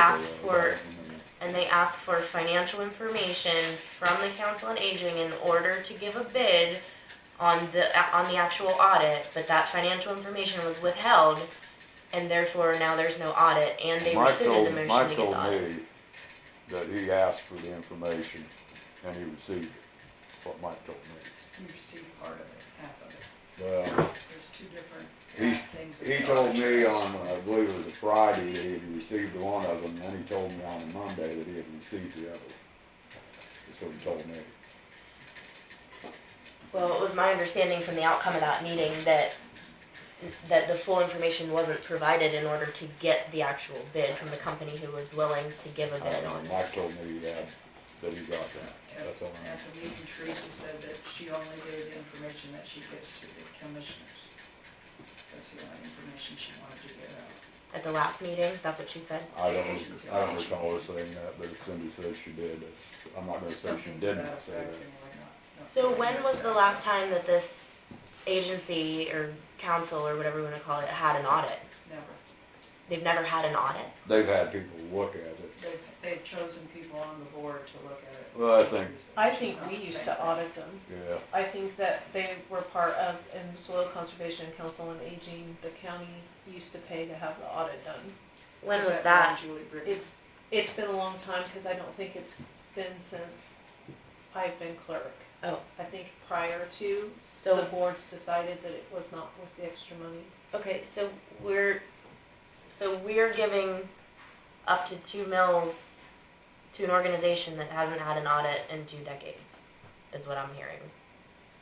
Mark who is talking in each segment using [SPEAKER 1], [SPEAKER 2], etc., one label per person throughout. [SPEAKER 1] asked for, and they asked for financial information from the council on aging in order to give a bid on the, on the actual audit, but that financial information was withheld, and therefore now there's no audit, and they
[SPEAKER 2] Mike
[SPEAKER 1] rescinded
[SPEAKER 2] told,
[SPEAKER 1] the motion to
[SPEAKER 2] Mike
[SPEAKER 1] get
[SPEAKER 2] told
[SPEAKER 1] the audit.
[SPEAKER 2] me that he asked for the information and he received it, what Mike told me.
[SPEAKER 3] You received part of it, half of it.
[SPEAKER 2] Well,
[SPEAKER 3] There's two different
[SPEAKER 2] He's-
[SPEAKER 3] uh, things. that
[SPEAKER 2] he
[SPEAKER 3] the
[SPEAKER 2] told me um,
[SPEAKER 3] auditor
[SPEAKER 2] on,
[SPEAKER 3] has.
[SPEAKER 2] I believe it was a Friday, that he had received one of them, and he told me on Monday that he had received the other. That's what he told me.
[SPEAKER 1] Well, it was my understanding from the outcome of that meeting that, that the full information wasn't provided in order to get the actual bid from the company who was willing to give a bid
[SPEAKER 2] Uh,
[SPEAKER 1] on it.
[SPEAKER 2] Mike told me he had, that he got that, that's all I know.
[SPEAKER 3] At the meeting, Teresa said that she only gave the information that she gives to the commissioners. That's the only information she wanted to get out.
[SPEAKER 1] At the last meeting, that's what she said.
[SPEAKER 2] I don't, I don't recall her saying that, but Cindy said she did, but I'm not gonna say she
[SPEAKER 3] Something to
[SPEAKER 2] didn't
[SPEAKER 3] that
[SPEAKER 2] say
[SPEAKER 3] effect,
[SPEAKER 2] that.
[SPEAKER 3] anyway, not- not
[SPEAKER 1] So
[SPEAKER 3] really
[SPEAKER 1] when was the
[SPEAKER 3] exact.
[SPEAKER 1] last time that this agency or council or whatever you wanna call it had an audit?
[SPEAKER 3] Never.
[SPEAKER 1] They've never had an audit.
[SPEAKER 2] They've had people look at it,
[SPEAKER 3] They've, they've chosen people on the board to look at it.
[SPEAKER 2] Well, I think-
[SPEAKER 4] I
[SPEAKER 3] Which is
[SPEAKER 4] think
[SPEAKER 3] not
[SPEAKER 4] we
[SPEAKER 3] the
[SPEAKER 4] used
[SPEAKER 3] same
[SPEAKER 4] to
[SPEAKER 3] thing.
[SPEAKER 4] audit them.
[SPEAKER 2] yeah.
[SPEAKER 4] I think that they were part of, in Soil Conservation Council on Aging, the county used to pay to have the audit done.
[SPEAKER 1] When
[SPEAKER 3] Is
[SPEAKER 1] was
[SPEAKER 3] that
[SPEAKER 1] that?
[SPEAKER 3] when Julie Britt-
[SPEAKER 4] It's, it's been a long time, cause I don't think it's been since I've been clerk.
[SPEAKER 1] Oh.
[SPEAKER 4] I think prior to, the
[SPEAKER 1] So,
[SPEAKER 4] boards decided that it was not worth the extra money.
[SPEAKER 1] okay, so we're, so we're giving up to two mills to an organization that hasn't had an audit in two decades, is what I'm hearing.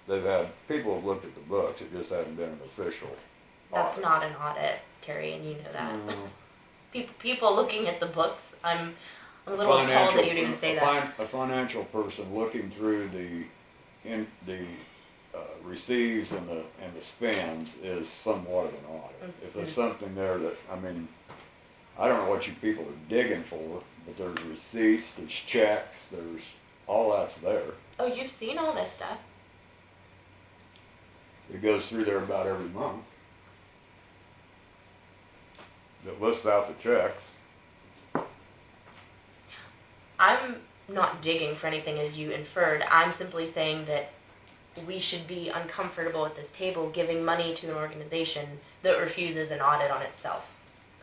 [SPEAKER 2] They've had, people have looked at the books, it just hasn't been an official.
[SPEAKER 1] That's
[SPEAKER 2] audit.
[SPEAKER 1] not an audit, Terry, and you know that.
[SPEAKER 2] Mm,
[SPEAKER 1] People, people looking at the books, I'm, I'm a little appalled that
[SPEAKER 2] financial-
[SPEAKER 1] you'd even say
[SPEAKER 2] a
[SPEAKER 1] that.
[SPEAKER 2] fin- A financial person looking through the, in, the, uh, receives and the, and the spends is somewhat of an audit.
[SPEAKER 1] Let's
[SPEAKER 2] If there's
[SPEAKER 1] see.
[SPEAKER 2] something there that, I mean, I don't know what you people are digging for, but there's receipts, there's checks, there's, all that's there.
[SPEAKER 1] Oh, you've seen all this stuff.
[SPEAKER 2] It goes through there about every month. That lists out the checks.
[SPEAKER 1] I'm not digging for anything as you inferred. I'm simply saying that we should be uncomfortable at this table giving money to an organization that refuses an audit on itself.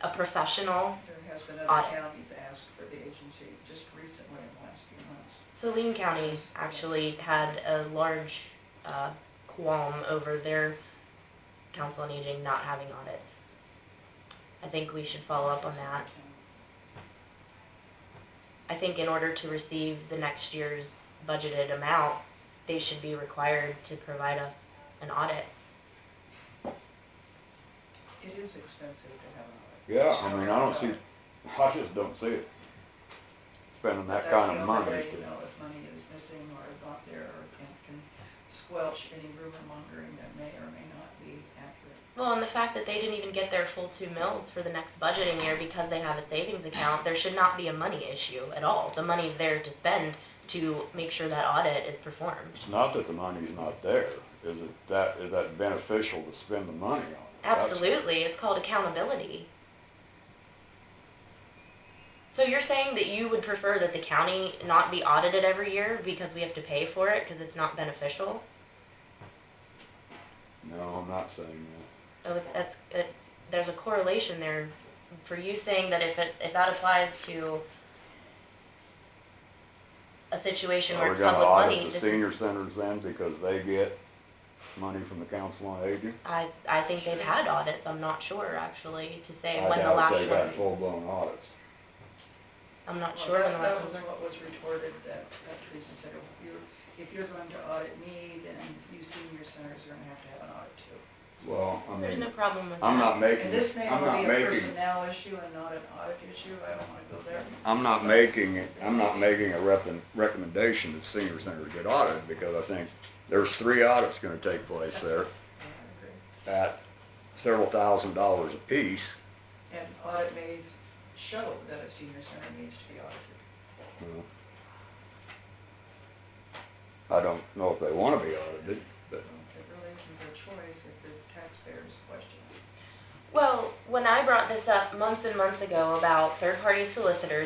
[SPEAKER 1] A professional.
[SPEAKER 3] There has been other
[SPEAKER 1] Audit.
[SPEAKER 3] counties asked for the agency just recently in the last few months.
[SPEAKER 1] Saline County actually had a large uh, qualm over their council on aging not having audits. I think we should follow up on that. I think in order to receive the next year's budgeted amount, they should be required to provide us an audit.
[SPEAKER 3] It is expensive to have an audit.
[SPEAKER 2] Yeah, I mean, I don't see, I just don't see it. Spending that kind of money.
[SPEAKER 3] That's the only way you know if money is missing or not there or can, can squelch any rumor mongering that may or may not be accurate.
[SPEAKER 1] Well, and the fact that they didn't even get their full two mills for the next budgeting year because they have a savings account, there should not be a money issue at all. The money's there to spend to make sure that audit is performed.
[SPEAKER 2] It's not that the money's not there, is it that, is that beneficial to spend the money on? That's-
[SPEAKER 1] Absolutely, it's called accountability. So you're saying that you would prefer that the county not be audited every year because we have to pay for it because it's not beneficial?
[SPEAKER 2] No, I'm not saying
[SPEAKER 1] Oh, that's, it, there's a correlation there for you saying that if it, if that applies to a
[SPEAKER 2] that.
[SPEAKER 1] situation
[SPEAKER 2] Are
[SPEAKER 1] where
[SPEAKER 2] we
[SPEAKER 1] it's
[SPEAKER 2] gonna
[SPEAKER 1] public money,
[SPEAKER 2] audit the
[SPEAKER 1] this is-
[SPEAKER 2] senior centers then because they get money from the council on aging?
[SPEAKER 1] I, I think they've had audits, I'm not sure actually, to say
[SPEAKER 2] I
[SPEAKER 1] when the
[SPEAKER 2] doubt
[SPEAKER 1] last
[SPEAKER 2] They've had
[SPEAKER 1] one,
[SPEAKER 2] full-blown audits.
[SPEAKER 1] I'm not
[SPEAKER 3] Well,
[SPEAKER 1] sure when
[SPEAKER 3] that-
[SPEAKER 1] the last one
[SPEAKER 3] That was what was retorted, that, that Teresa said, "Oh, if you're, if you're going to audit me, then you senior centers are gonna have to have an audit too.
[SPEAKER 2] Well, I
[SPEAKER 1] There's no
[SPEAKER 2] mean,
[SPEAKER 1] problem with that.
[SPEAKER 2] I'm not making,
[SPEAKER 3] And this may
[SPEAKER 2] I'm
[SPEAKER 3] only
[SPEAKER 2] not
[SPEAKER 3] be a
[SPEAKER 2] making
[SPEAKER 3] personnel issue and not an audit issue, I don't wanna go there.
[SPEAKER 2] I'm not making, I'm not making a rep- recommendation that senior centers get audited, because I think there's three audits gonna take place there
[SPEAKER 3] Yeah, I agree.
[SPEAKER 2] at several thousand dollars apiece.
[SPEAKER 3] And audit may show that a senior center needs to be audited.
[SPEAKER 2] you know. I don't know if they wanna be audited, but
[SPEAKER 3] It really isn't their choice if the taxpayers question it.
[SPEAKER 1] Well, when I brought this up months and months ago about third-party solicitors,